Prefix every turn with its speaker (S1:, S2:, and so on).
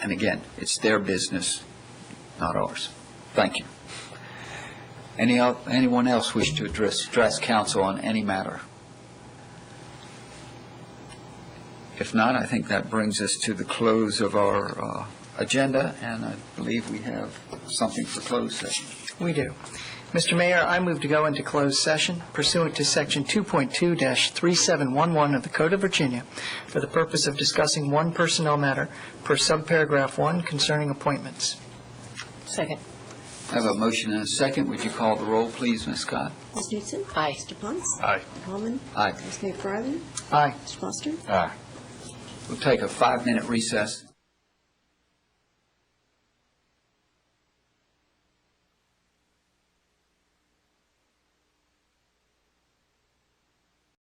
S1: And again, it's their business, not ours. Thank you. Any, el- anyone else wish to address, address council on any matter? If not, I think that brings us to the close of our uh, agenda, and I believe we have something for closed session.
S2: We do. Mr. Mayor, I move to go into closed session pursuant to Section 2.2-3711 of the Code of Virginia for the purpose of discussing one personnel matter per subparagraph 1 concerning appointments.
S3: Second.
S1: I have a motion and a second. Would you call the roll, please, Ms. Scott?
S4: Ms. Newton.
S3: Aye.
S4: Mr. Ponce.
S5: Aye.
S4: Holman.
S1: Aye.
S4: Ms. McFarland.
S2: Aye.
S4: Mr. Foster.
S1: We'll take a five-minute recess.